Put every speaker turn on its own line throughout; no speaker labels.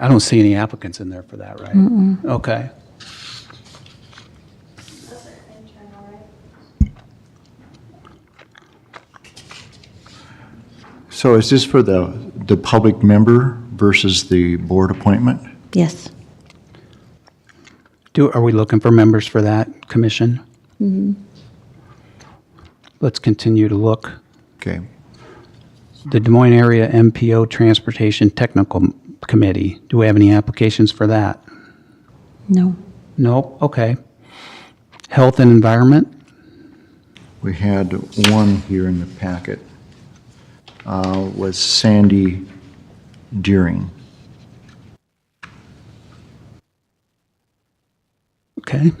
I don't see any applicants in there for that, right? Okay.
So is this for the, the public member versus the board appointment?
Yes.
Do, are we looking for members for that commission? Let's continue to look.
Okay.
The Des Moines Area MPO Transportation Technical Committee, do we have any applications for that?
No.
Nope, okay. Health and Environment,
We had one here in the packet. Uh, Was Sandy Deering.
okay.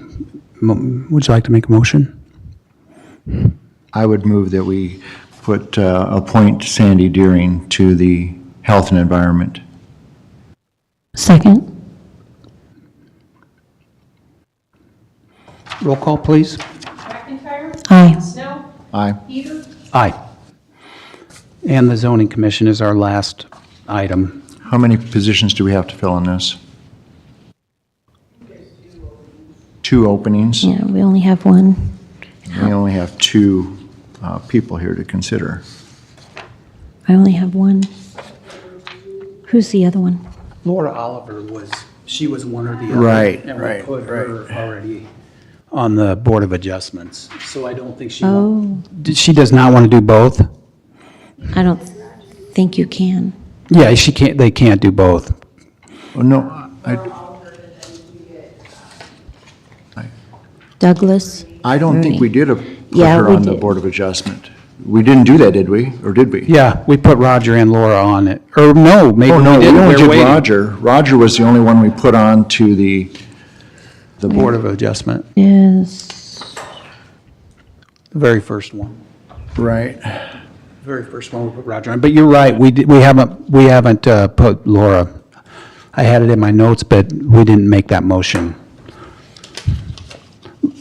Mo- Would you like to make a motion?
I would move that we put, uh, appoint Sandy Deering to the Health and Environment.
Second?
Roll call, please.
McIntyre.
Aye.
Snow.
Aye.
Peter.
Aye. And the Zoning Commission is our last item.
How many positions do we have to fill in this? Two openings?
Yeah, we only have one.
We only have two uh, people here to consider.
I only have one. Who's the other one?
Laura Oliver was, she was one or the other.
Right,
and we
right,
put her Already on the Board of Adjustments, so I don't think she.
Oh,
Did- She does not want to do both?
I don't think you can.
Yeah, she can't, they can't do both.
Oh, no, I,
Douglas?
I don't think we did a- put
Yeah,
her
we
on the
did.
Board of Adjustment. We didn't do that, did we? Or did we?
Yeah, we put Roger and Laura on it, or no, maybe
Oh,
we
no, we
didn't,
only
they're
did
waiting.
Roger. Roger was the only one we put on to the,
The Board of Adjustment,
Yes.
the very first one,
right.
The very first one we put Roger on, but you're right, we, di- we haven't, we haven't uh, put Laura. I had it in my notes, but we didn't make that motion.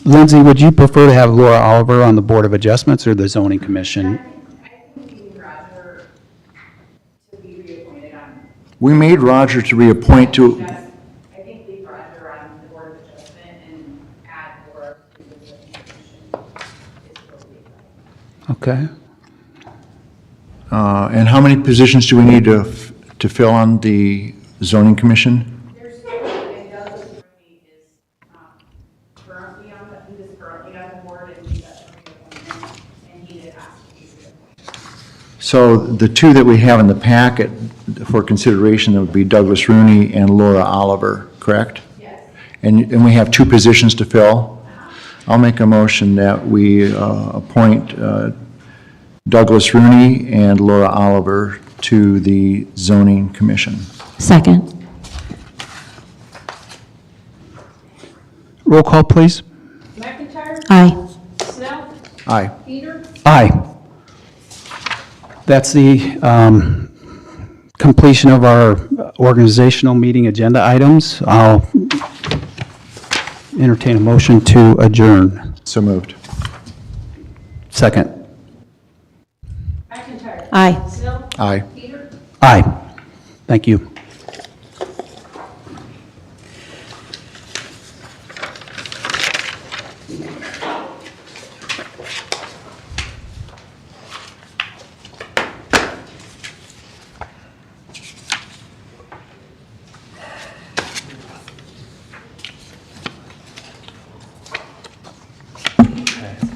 Lindsay, would you prefer to have Laura Oliver on the Board of Adjustments or the Zoning Commission?
I think we need Roger to be reappointed on,
We made Roger to reappoint to,
just, I think leave Roger on the board of adjustment and add or to the commission. is what we like.
Okay,
uh, and how many positions do we need to, f- to fill on the zoning commission?
There's, and Douglas Murphy is, um, currently on the, he was currently on the board and he got reappointed, and he did ask to be reappointed.
So the two that we have in the packet for consideration, that would be Douglas Rooney and Laura Oliver, correct?
Yes.
And, and we have two positions to fill. I'll make a motion that we uh, appoint uh, Douglas Rooney and Laura Oliver to the zoning commission.
Second?
roll call, please.
McIntyre.
Aye.
Snow.
Aye.
Peter.
Aye. That's the um, completion of our organizational meeting agenda items. I'll entertain a motion to adjourn.
So moved.
Second.
McIntyre.
Aye.
Snow.
Aye.
Peter.
Aye. Thank you.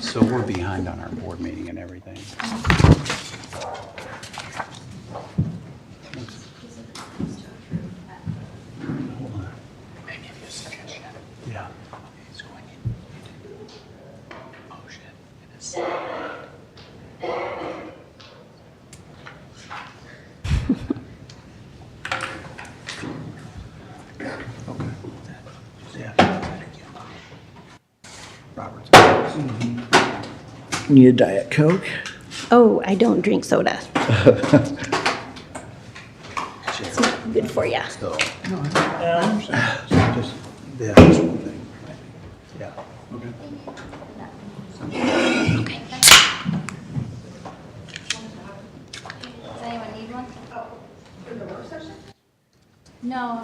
So we're behind on our board meeting and everything. Yeah. Oh, Mm-hmm.
Need a Diet Coke?
Oh, I don't drink soda. It's not good for you.
Yeah, that's one thing. Yeah.
Does anyone need one? For the work session? No,